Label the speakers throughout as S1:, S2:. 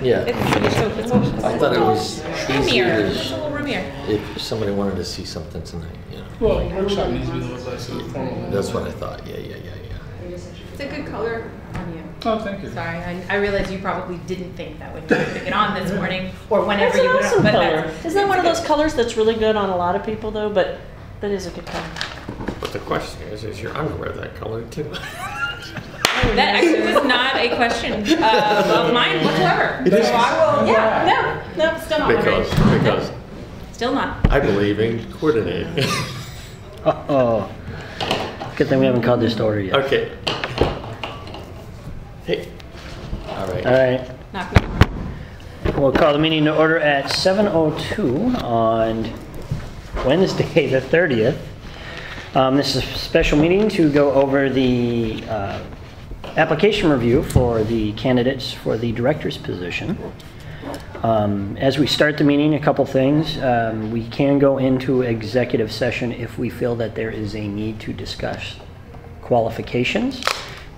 S1: Yeah,
S2: It's pretty so it's all-
S1: I thought it was
S2: Room
S1: easier
S2: here,
S1: to-
S2: just a little room here.
S1: if somebody wanted to see something tonight, you know.
S3: Well, the workshop needs to be the website, so the formal.
S1: That's what I thought, yeah, yeah, yeah, yeah.
S4: It's a good color on you.
S3: Oh, thank you.
S2: Sorry, I, I realize you probably didn't think that when you were putting it on this morning or whenever
S5: That's an
S2: you put it on,
S5: awesome
S2: but
S5: color.
S2: that's.
S5: Isn't that
S2: it's
S5: one of
S2: good.
S5: those colors that's really good on a lot of people though? But that is a good color.
S6: But the question is, is your underwear that color too?
S2: That actually was not a question uh, of mine whatsoever.
S1: It is.
S2: So I will, yeah, no, no, still not. worried.
S6: Because, because
S2: Still not.
S6: I believe in coordinating.
S7: Uh-oh. Good thing we haven't called this to order yet.
S6: Okay. Hey, all right.
S7: All right,
S2: Not good.
S7: we'll call the meeting to order at 7:02 on Wednesday, the 30th. Um, This is a special meeting to go over the uh, application review for the candidates for the director's position. Um, As we start the meeting, a couple things. Um, We can go into executive session if we feel that there is a need to discuss qualifications.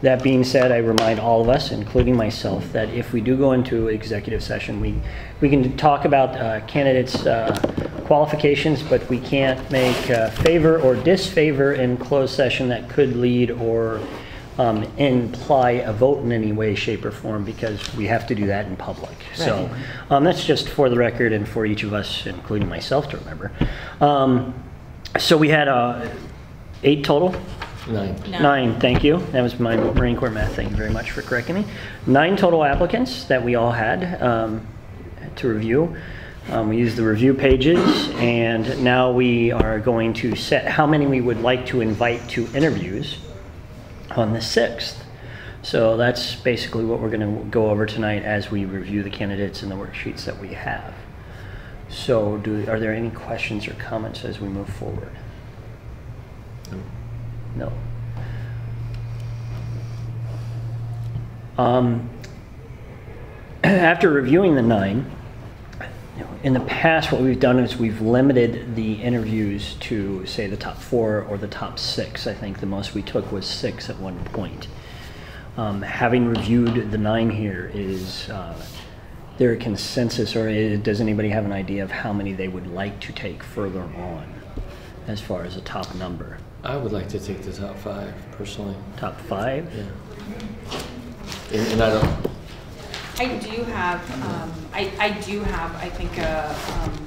S7: That being said, I remind all of us, including myself, that if we do go into executive session, we, we can talk about uh, candidates' uh, qualifications, but we can't make uh, favor or disfavor in closed session that could lead or um, imply a vote in any way, shape, or form, because we have to do that in public. So um, that's just for the record and for each of us, including myself, to remember. Um, So we had uh, eight total?
S1: Nine.
S2: No.
S7: Nine, thank you. That was my Marine Corps math. Thank you very much for correcting me. Nine total applicants that we all had um, to review. Um, We used the review pages, and now we are going to set how many we would like to invite to interviews on the 6th. So that's basically what we're going to go over tonight as we review the candidates and the worksheets that we have. So do, are there any questions or comments as we move forward? No. Um, After reviewing the nine, in the past, what we've done is we've limited the interviews to, say, the top four or the top six. I think the most we took was six at one point. Um, Having reviewed the nine here, is uh, there a consensus, or i- does anybody have an idea of how many they would like to take further on as far as a top number?
S1: I would like to take the top five personally,
S7: Top five?
S1: yeah. And, and I don't,
S4: I do have, um, I, I do have, I think, a, um,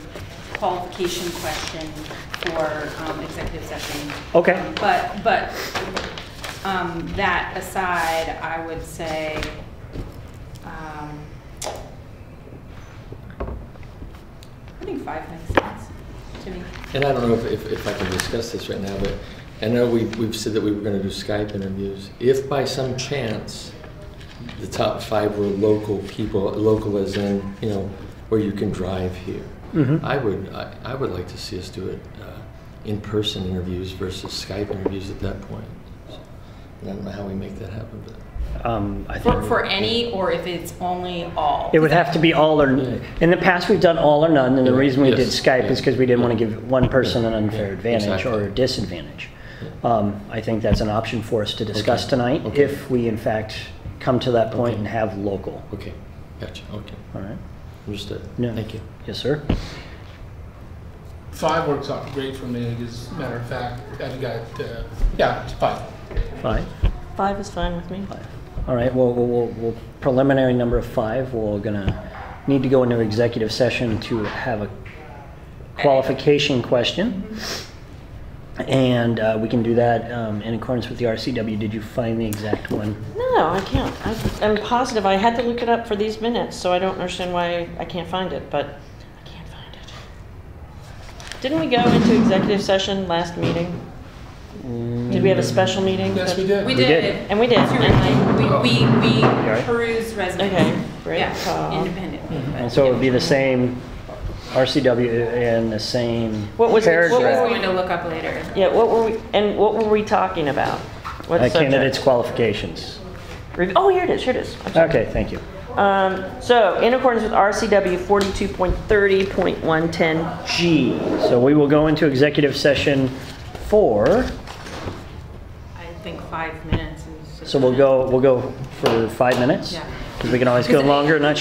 S4: qualification question for, um, executive session.
S7: Okay.
S4: Um, But, but, um, that aside, I would say, um, I think five makes sense to me.
S1: and I don't know if, if, if I can discuss this right now, but I know we, we've said that we were gonna do Skype interviews. If by some chance, the top five were local people, local as in, you know, where you can drive here. I would, I, I would like to see us do it, uh, in-person interviews versus Skype interviews at that point. So, I don't know how we make that happen, but.
S7: Um, I
S4: For,
S7: think
S4: for any, or if it's only all?
S7: it would have to be all or, in the past, we've done all or none, and the
S1: Yeah,
S7: reason we did
S1: yes,
S7: Skype is
S1: yeah,
S7: because we didn't
S1: yeah.
S7: want to give one person an
S1: Yeah,
S7: unfair
S1: yeah,
S7: advantage
S1: exactly.
S7: or disadvantage. Um, I think that's an option for us to discuss
S1: Okay,
S7: tonight,
S1: okay.
S7: if we in fact come to that point
S1: Okay.
S7: and have local,
S1: Okay, gotcha, okay,
S7: all right?
S1: understood,
S7: Yeah.
S1: thank you.
S7: Yes, sir?
S3: Five works out great for me, as a matter of fact, I've got, uh, yeah, it's five.
S7: Five?
S5: Five is fine with me.
S7: All right, well, we'll- we'll, we'll, preliminary number of five, we're gonna need to go into executive session to have a qualification question. And uh, we can do that um, in accordance with the RCW. Did you find the exact one?
S5: No, I can't. I, I'm positive. I had to look it up for these minutes, so I don't understand why I can't find it, but I can't find it. Didn't we go into executive session last meeting? Did we have a special meeting?
S3: Yes, we did.
S4: We
S7: did.
S4: did.
S5: And we did.
S4: It's really- We, we, we
S7: right?
S4: perused resumes.
S5: Okay, great Um, call.
S4: Yeah, independently.
S7: And so it would be the same RCW and the same
S5: What was it- what
S4: Just
S5: was
S7: paragraph.
S4: going to look up later.
S5: Yeah, what were we, and what were we talking about? What
S7: Uh,
S5: subject?
S7: Candidates' qualifications.
S5: Re- Oh, here it is, here it is. I'm sorry.
S7: Okay, thank you.
S5: Um, so, in accordance with RCW 42.30.110,
S7: G, so we will go into executive session for
S4: I think five minutes is.
S7: So we'll go, we'll go for five minutes?
S4: Yeah.
S7: Because we can always go longer, not